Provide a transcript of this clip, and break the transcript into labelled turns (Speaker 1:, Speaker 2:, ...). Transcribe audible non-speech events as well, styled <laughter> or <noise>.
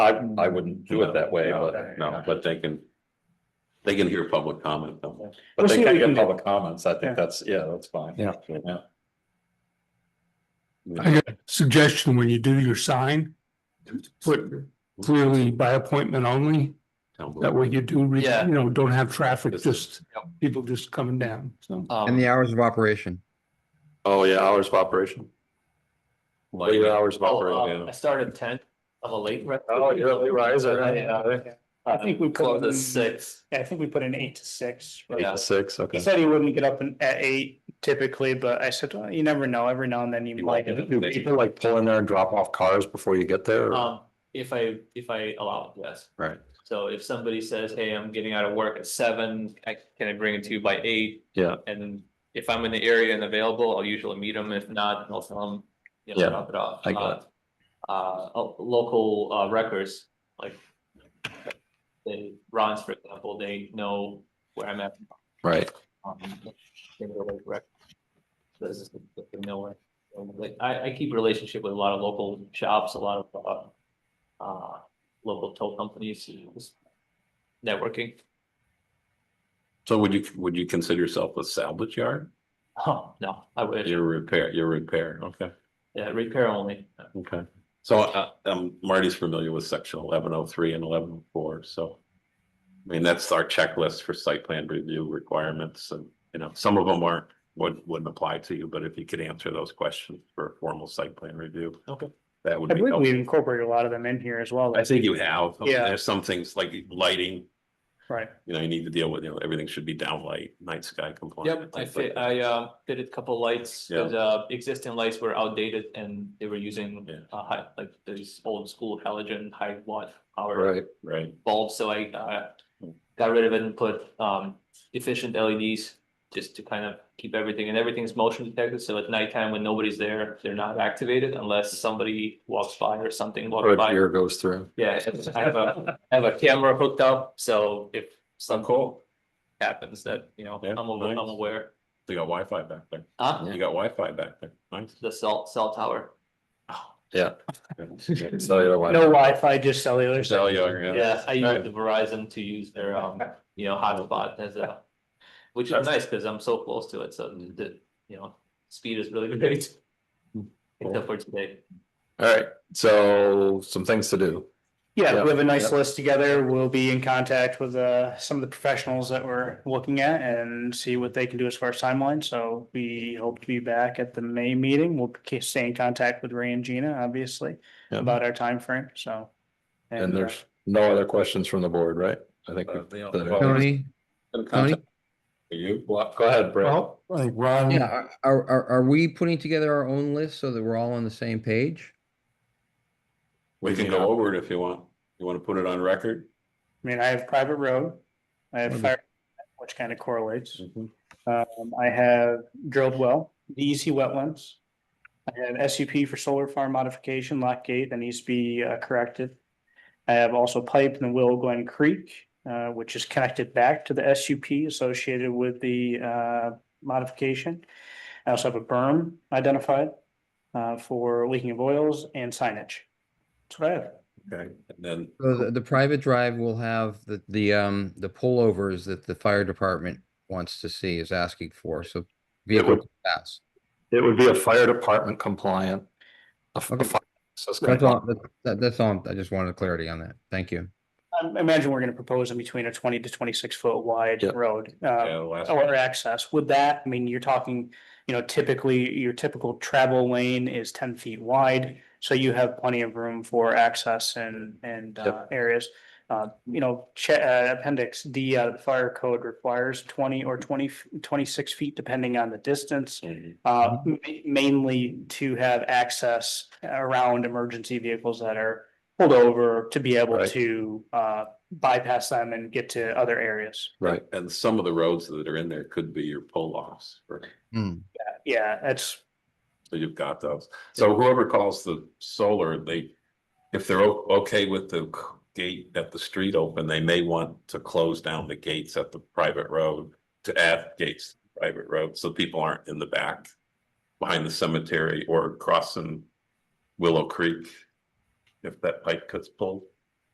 Speaker 1: I, I wouldn't do it that way,
Speaker 2: No,
Speaker 1: but
Speaker 2: No, but they can, they can hear public comment though.
Speaker 1: But
Speaker 3: see
Speaker 1: they
Speaker 3: what
Speaker 1: can
Speaker 3: we can
Speaker 1: get
Speaker 3: do.
Speaker 1: public comments. I
Speaker 3: Yeah.
Speaker 1: think that's, yeah, that's fine.
Speaker 4: Yeah.
Speaker 1: Yeah.
Speaker 4: I got a suggestion when you do your sign, put clearly by appointment only.
Speaker 2: Tell
Speaker 4: That
Speaker 2: them.
Speaker 4: way you do, re-
Speaker 5: Yeah.
Speaker 4: you know, don't have traffic,
Speaker 1: Yes.
Speaker 4: just people just coming down, so.
Speaker 5: Um,
Speaker 6: And the hours of operation.
Speaker 1: Oh, yeah, hours of operation. What are your hours of
Speaker 5: oh, um,
Speaker 1: operation?
Speaker 5: I started at ten, I'm a late. uh, rest-
Speaker 1: Oh, you're early riser, huh?
Speaker 3: Yeah. I think we put
Speaker 5: Close
Speaker 3: in-
Speaker 5: at six,
Speaker 3: Yeah, I think we put in eight to six. right?
Speaker 5: Yeah.
Speaker 1: Six,
Speaker 3: He
Speaker 1: okay.
Speaker 3: said he wouldn't get up in- at eight typically, but I said, well, you never know, every now and then you
Speaker 1: Do
Speaker 3: might.
Speaker 1: People like pull in there and drop off cars before you get there. or-
Speaker 5: um, if I, if I allow it, yes.
Speaker 1: Right.
Speaker 5: So if somebody says, hey, I'm getting out of work at seven, I, can I bring it to you by eight?
Speaker 1: Yeah.
Speaker 5: And if I'm in the area and available, I'll usually meet them, if not, I'll tell them, you
Speaker 1: Yeah,
Speaker 5: know, drop it off.
Speaker 1: I got
Speaker 5: Uh, Uh, uh, local, uh, records, like. They, Ron's, for example, they know where I'm at,
Speaker 1: Right.
Speaker 5: um, in the lake rec. This is nowhere. Like, I, I keep relationship with a lot of local shops, a lot of, uh, uh, local tow companies, you know, just networking.
Speaker 2: So would you, would you consider yourself a salvage yard?
Speaker 5: Oh, no, I wish,
Speaker 2: Your repair, your repair, okay,
Speaker 5: yeah, repair only.
Speaker 2: okay. So uh, um, Marty's familiar with section eleven oh three and eleven oh four, so. I mean, that's our checklist for site plan review requirements and, you know, some of them aren't, wouldn't, wouldn't apply to you, but if you could answer those questions for a formal site plan review.
Speaker 5: Okay.
Speaker 2: That would
Speaker 3: I
Speaker 2: be
Speaker 3: believe
Speaker 2: helpful.
Speaker 3: we incorporate a lot of them in here as well,
Speaker 2: I think you have, I mean,
Speaker 3: Yeah.
Speaker 2: there's some things like lighting,
Speaker 3: right?
Speaker 2: you know, you need to deal with, you know, everything should be downlight, night sky compliant.
Speaker 5: Yep, I
Speaker 2: things like
Speaker 5: fit,
Speaker 2: that.
Speaker 5: I uh did a couple lights, cause uh existing lights were outdated and they were using
Speaker 2: Yeah.
Speaker 5: uh high, like these old school halogen high watt power
Speaker 1: Right.
Speaker 2: Right,
Speaker 5: bulbs, so I uh got rid of it and put um efficient LEDs just to kind of keep everything, and everything's motion detected, so at nighttime when nobody's there, they're not activated unless somebody walks by or something
Speaker 1: Or
Speaker 5: walks
Speaker 1: a
Speaker 5: by.
Speaker 1: deer goes
Speaker 5: <laughs>
Speaker 1: through.
Speaker 5: Yeah, I have a, I have a camera hooked up, so if something
Speaker 2: cool.
Speaker 5: happens that, you know,
Speaker 2: Yeah,
Speaker 5: I'm aw- I'm
Speaker 2: nice.
Speaker 5: aware.
Speaker 2: they got Wi-Fi back there,
Speaker 5: Huh?
Speaker 2: you got Wi-Fi back there, nice.
Speaker 5: the cell, cell tower.
Speaker 2: Yeah.
Speaker 1: Cellular
Speaker 3: No Wi-Fi, just cellular.
Speaker 2: Cellular, yeah.
Speaker 5: Yeah, I
Speaker 2: Right.
Speaker 5: use the Verizon to use their, um, you know, hotspot as a, which is nice because I'm so close to it, so the, you know, speed is really <laughs> great.
Speaker 2: Hmm.
Speaker 5: Except for today.
Speaker 1: All right, so some things to do.
Speaker 3: Yeah,
Speaker 1: Yeah.
Speaker 3: we have a nice list together. We'll be in contact with uh some of the professionals that we're looking at and see what they can do as far as timeline. So we hope to be back at the May meeting. We'll ke- stay in contact with Ray and Gina, obviously,
Speaker 1: Yeah.
Speaker 3: about our time frame. so.
Speaker 1: And
Speaker 3: uh,
Speaker 1: there's no other questions from the board, right? I think.
Speaker 2: Uh,
Speaker 1: we've-
Speaker 2: they all-
Speaker 1: that-
Speaker 2: well,
Speaker 6: Tony,
Speaker 2: in contact
Speaker 6: Tony,
Speaker 2: with You,
Speaker 1: Well, Go ahead, Brett.
Speaker 4: Well, I think Ron,
Speaker 6: yeah, are, are, are- are we putting together our own list so that we're all on the same page?
Speaker 2: we can go over it if you want, you wanna put it on record?
Speaker 3: I mean, I have private road, I have
Speaker 6: Mhm.
Speaker 3: fire, which kind of correlates. Um, I have drilled well, the EC wetlands. I have SUP for solar farm modification, lock gate that needs to be uh, corrected. I have also pipe in the Willow Glen Creek, uh, which is connected back to the SUP associated with the, uh, modification. I also have a berm identified, uh, for leaking of oils and signage. That's what I have.
Speaker 2: Okay, and then,
Speaker 6: So the, the private drive will have the, the, um, the pullovers that the fire department wants to see is asking for, so vehicles can pass.
Speaker 1: It would be a fire department compliant. a f- a
Speaker 6: Okay.
Speaker 1: fire access
Speaker 6: That's
Speaker 1: compliant.
Speaker 6: all, that- that, that's all, I just wanted clarity on that, thank you.
Speaker 3: I imagine we're gonna propose in between a twenty to twenty-six foot wide
Speaker 1: Yep.
Speaker 3: road.
Speaker 2: yeah,
Speaker 3: Uh,
Speaker 2: the last.
Speaker 3: or access. With that, I mean, you're talking, you know, typically your typical travel lane is ten feet wide. So you have plenty of room for access and, and uh, areas. Uh, you know, che- uh, appendix D out of the fire code requires twenty or 20 f- 26 feet depending on the distance.
Speaker 2: Mhm.
Speaker 3: Uh, ma- mainly to have access around emergency vehicles that are pulled over to be able
Speaker 1: Right.
Speaker 3: to, uh, bypass them and get to other areas.
Speaker 1: Right.
Speaker 2: And some of the roads that are in there could be your pull offs,
Speaker 6: Hmm.
Speaker 3: Yeah, that's
Speaker 2: so you've got those. So whoever calls the solar, they, if they're o- okay with the c- gate at the street open, they may want to close down the gates at the private road to add gates to the private road, so people aren't in the back behind the cemetery or crossing Willow Creek if that pipe gets pulled.